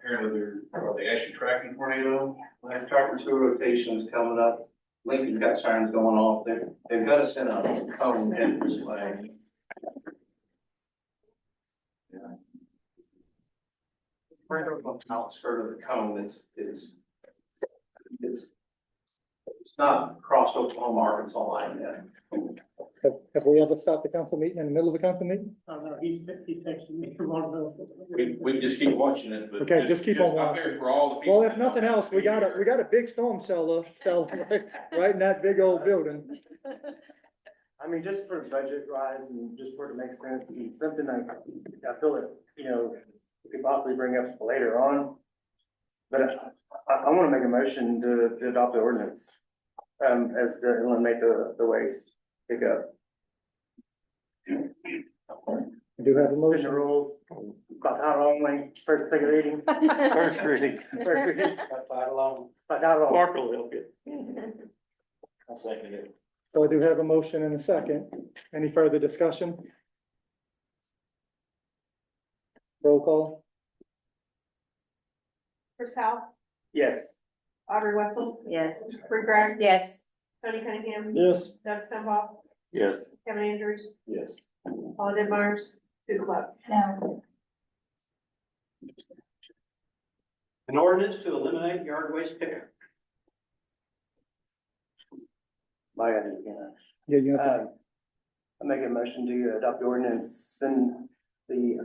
apparently they're, are they actually tracking tornado? Last Tractor Two rotation's coming up, Lincoln's got sirens going off, they're, they've got to send a cone in this way. Right up on the outskirt of the cone, it's, it's, it's, it's not across Oklahoma, Arkansas line yet. Have, have we ever stopped the council meeting in the middle of a council meeting? Oh, no, he's, he's texting me from Longville. We, we just keep watching it, but. Okay, just keep on Just up watching. there for all the people Well, if nothing else, we got a, we got a big storm cellar, cellar, right- right in that big old building. I mean, just for budget rise and just for it to make sense, and something I, I feel that, you know, we could possibly bring up later on. But I, I, I wanna make a motion to, to adopt the ordinance, um, as to eliminate the, the waste pickup. I Do have a Suspend the motion? rules, by title only, first second reading, First reading. first reading, alone. by title only. Mark will help you. I'll second it. So I do have a motion and a second. Any further discussion? Roll call? Chris Powell, Yes. Audrey Wetzel, Yes. Free Greg, Yes. Tony Cunningham, Yes. Doug Stoneball, Yes. Kevin Andrews, Yes. Paula Denmark, Sue Love. No. An ordinance to eliminate yard waste pickup. My, God, yeah. Yeah, you have, Um, I make a motion to adopt the ordinance, spend the,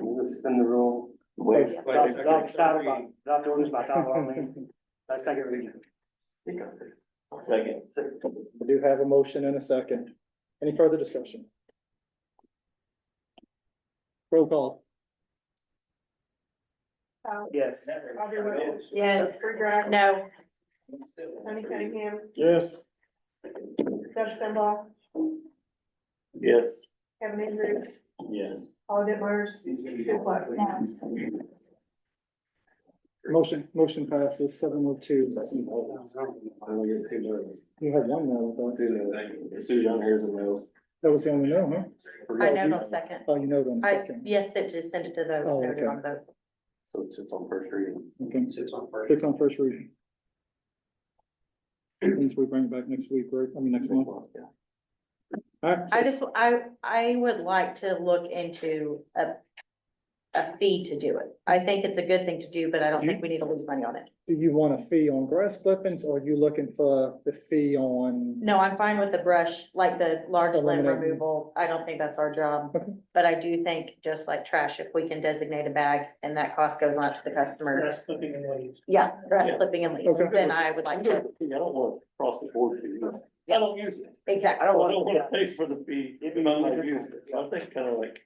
let's spend the rule. Wait. Adopt adopt- adopt by- adopt the ordinance by title only, by second reading. Second. I do have a motion and a second. Any further discussion? Roll call? Powell, Yes. Uh, Audrey Wetzel, Yes. Free Greg, No. Tony Cunningham, Yes. Doug Stoneball, Yes. Kevin Andrews, Yes. Paula Denmark, Sue Love. Motion, motion passes seven oh two. You had one now, I thought. Susan, here's a no. That was the only no, huh? I know, don't second. Oh, you know them, I, second. yes, that just send it to the, Oh, they're okay. on the, So it sits on first reading. Okay. Sits on first. Six on first reading. Means we bring it back next week, right? I mean, next month. All right, I just, I, I would like to look into a, a fee to do it. I think it's a good thing to do, but I don't think we need to lose money on it. do you want a fee on grass clippings or are you looking for the fee on? No, I'm fine with the brush, like the large limb Eliminating. removal. I don't think that's our job. Okay. But I do think, just like trash, if we can designate a bag and that cost goes on to the customer, That's flipping and leaves. yeah, grass clipping and leaves, Okay. then I would like to, don't want to cross the board. fee. I don't use it. exactly. I don't want to pay for the fee, even though I use it. So I think kind of like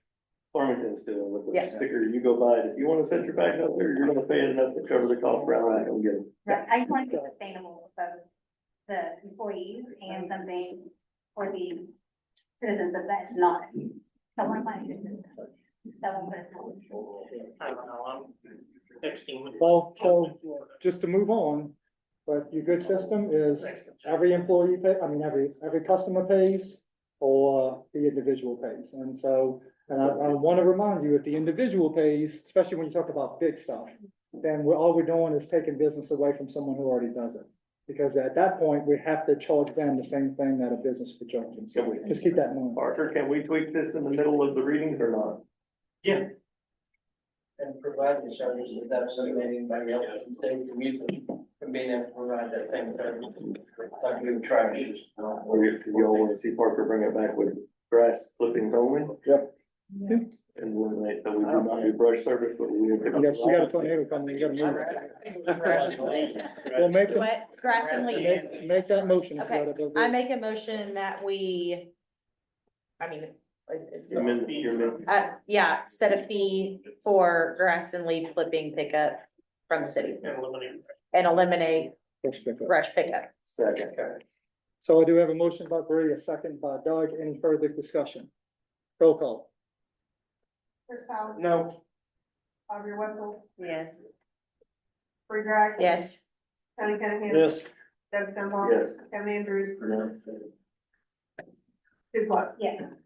Farmington's doing with Yeah. the sticker, you go buy it. If you want to set your bags out there, you're going to pay enough to cover the cost for outright. Go get it. Right, I just want to be sustainable for both the employees and something for the citizens of that, not someone planning to. Someone put it forward. I don't know, I'm texting. with- Well, so just to move on, but your good system is every employee pay, I mean, every, every customer pays or uh, the individual pays. And so, and I, I want to remind you, if the individual pays, especially when you talk about big stuff, then we're, all we're doing is taking business away from someone who already does it. Because at that point, we have to charge them the same thing that a business would charge them. So just keep that in mind. Parker, can we tweak this in the middle of the readings or not? and provide the service without submitting by mail, save the music from being able to provide that same service. Like we were trying to. Or if y'all wanna see Parker bring it back with grass clippings only? Yep. Yeah. And eliminate, that we do not do brush service, but we. You got, you got a tornado coming, you gotta move. Well, make, the- What, grass and leaves? make, make that motion. so that it doesn't- I make a motion that we, I mean, is, is- Your min- your min- uh, yeah, set a fee for grass and leaf flipping pickup from the city And eliminate. and eliminate First pickup. brush pickup. second. So I do have a motion by Bree, a second by Doug. Any further discussion? Roll call. Chris Powell, No. Audrey Wetzel, Yes. Free Greg. Yes, Tony Cunningham. Yes. Doug Stoneball. Yes. Kevin Andrews, Sue Love. Yeah.